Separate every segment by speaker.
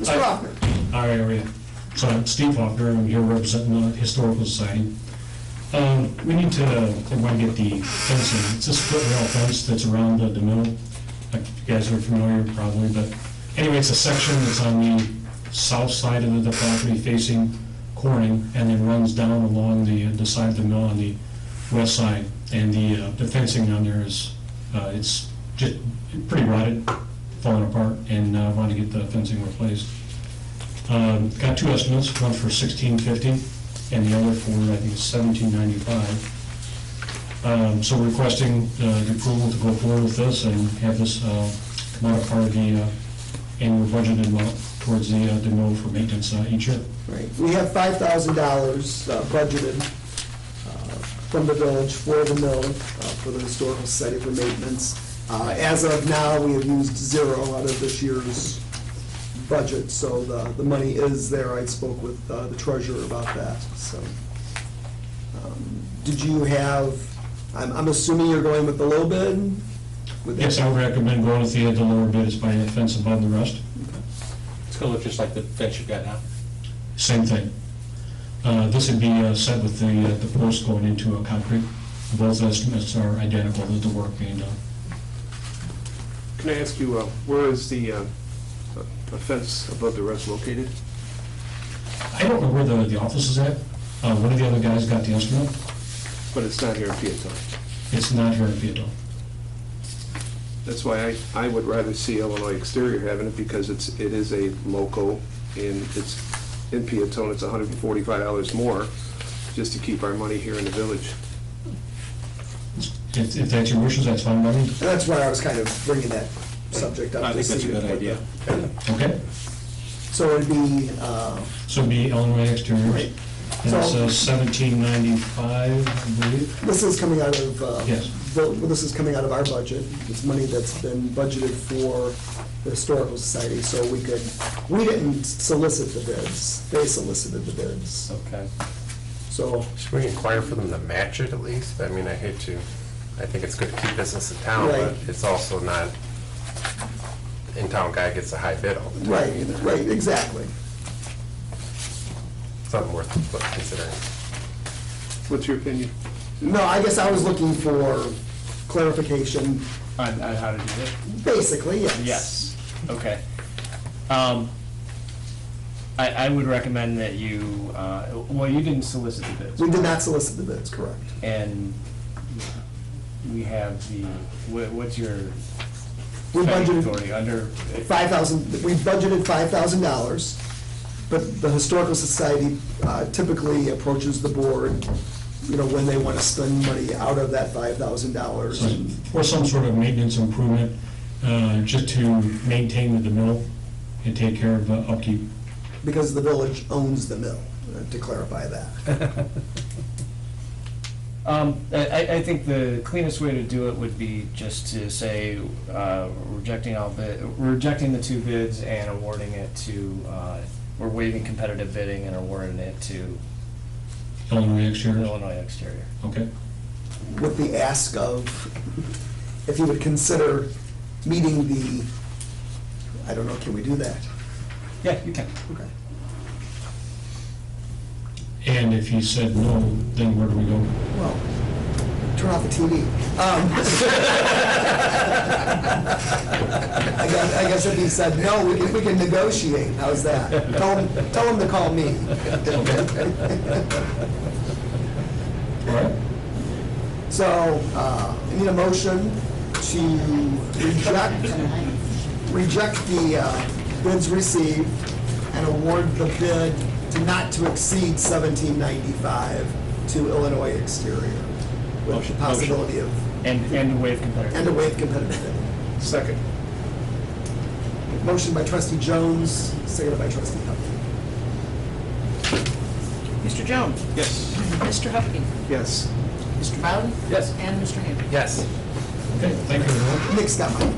Speaker 1: Mr. Hoffman?
Speaker 2: Hi, how are you? So I'm Steve Hoffner, I'm here representing the Historical Society. Um, We need to, I want to get the fencing, it's this foot rail fence that's around the the mill. Like, You guys are familiar probably, but anyway, it's a section that's on the south side of the property facing Corning and then runs down along the, the side of the mill on the west side. And the, uh, the fencing on there is, uh, it's just pretty rotted, falling apart, and I want to get the fencing replaced. Um, Got two estimates, one for sixteen fifty and the other for, I think, seventeen ninety-five. Um, So we're requesting uh, the approval to go forward with this and have this uh, come out of part of the uh, annual budget amount towards the, uh, the mill for maintenance uh, each year.
Speaker 1: Right, we have five thousand dollars budgeted uh, from the village for the mill, uh, for the historical society for maintenance. Uh, As of now, we have used zero out of this year's budget, so the, the money is there. I spoke with uh, the treasurer about that, so. um, Did you have, I'm, I'm assuming you're going with the low bid? With that-
Speaker 2: Yes, I would recommend going with the, the lower bid, it's by a fence above the rest.
Speaker 3: It's gonna look just like the fence you've got now.
Speaker 2: Same thing. Uh, This would be uh, set with the, uh, the post going into a concrete. Both estimates are identical to the work being done.
Speaker 4: Can I ask you, uh, where is the uh, uh, fence above the rest located?
Speaker 2: I don't know where the, the office is at. Uh, one of the other guys got the instrument.
Speaker 4: But it's not here in Peatone.
Speaker 2: It's not here in Vietnam.
Speaker 4: That's why I, I would rather see Illinois Exterior having it, because it's, it is a local, and it's, in Peatone, it's hundred and forty-five dollars more, just to keep our money here in the village.
Speaker 2: If, if that's your wishes, that's fine by me.
Speaker 1: And that's why I was kind of bringing that subject up.
Speaker 3: I think
Speaker 1: to
Speaker 3: that's
Speaker 1: see
Speaker 3: a good
Speaker 1: what the-
Speaker 3: idea.
Speaker 2: Okay?
Speaker 1: So it'd be, uh,
Speaker 2: So it'd be Illinois Exteriors.
Speaker 1: Right.
Speaker 2: And
Speaker 1: So-
Speaker 2: it's uh, seventeen ninety-five, I believe.
Speaker 1: This is coming out of, uh,
Speaker 2: Yes.
Speaker 1: the- well, this is coming out of our budget. It's money that's been budgeted for the Historical Society, so we could, we didn't solicit the bids. They solicited the bids.
Speaker 3: Okay.
Speaker 1: So,
Speaker 5: Should we inquire for them to match it at least? I mean, I hate to, I think it's good to keep business in town,
Speaker 1: Right.
Speaker 5: but it's also not, in-town guy gets a high bid all the time.
Speaker 1: right, right, exactly.
Speaker 5: It's not worth considering.
Speaker 4: What's your opinion?
Speaker 1: No, I guess I was looking for clarification,
Speaker 6: on, on how to do it?
Speaker 1: basically, yes.
Speaker 6: Yes, okay. Um, I, I would recommend that you, uh, well, you didn't solicit the bids.
Speaker 1: We did not solicit the bids, correct.
Speaker 6: And we have the, what, what's your
Speaker 1: We
Speaker 6: spending
Speaker 1: budgeted-
Speaker 6: authority under?
Speaker 1: five thousand, we budgeted five thousand dollars, but the Historical Society uh, typically approaches the board, you know, when they want to spend money out of that five thousand dollars.
Speaker 2: So- Or some sort of maintenance improvement, uh, just to maintain the mill and take care of uh, upkeep.
Speaker 1: Because the village owns the mill, uh, to clarify that.
Speaker 6: Um, I, I- I think the cleanest way to do it would be just to say, uh, rejecting all bid, rejecting the two bids and awarding it to, uh, we're waiving competitive bidding and awarding it to
Speaker 2: Illinois Exteriors,
Speaker 6: Illinois Exterior.
Speaker 2: okay?
Speaker 1: With the ask of, if you would consider meeting the, I don't know, can we do that?
Speaker 6: Yeah, you can.
Speaker 1: Okay.
Speaker 2: And if he said no, then where do we go?
Speaker 1: Well, turn off the TV. Um, I guess, I guess if he said, no, we can, we can negotiate, how's that? Tell him, tell him to call me.
Speaker 2: All right?
Speaker 1: So, uh, I need a motion to reject, reject the uh, bids received and award the bid to not to exceed seventeen ninety-five to Illinois Exterior. With the
Speaker 6: Motion, motion.
Speaker 1: possibility of,
Speaker 6: And, and waive competitive.
Speaker 1: and a waive competitive bidding.
Speaker 4: Second.
Speaker 1: Motion by trustee Jones, seconded by trustee Huff.
Speaker 7: Mr. Jones?
Speaker 4: Yes.
Speaker 7: Mr. Huckabee?
Speaker 4: Yes.
Speaker 7: Mr. Bowden?
Speaker 6: Yes.
Speaker 7: And Mr. Hamlin?
Speaker 5: Yes.
Speaker 2: Okay, thank you, everyone.
Speaker 1: Nick's got mine.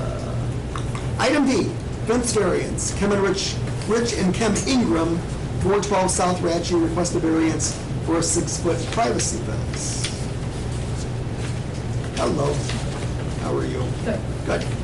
Speaker 1: Uh, Item D, fence variance. Kim and Rich, Rich and Kim Ingram, 412 South Ratchey, request a variance for a six-foot privacy fence. Hello, how are you? Good. Good.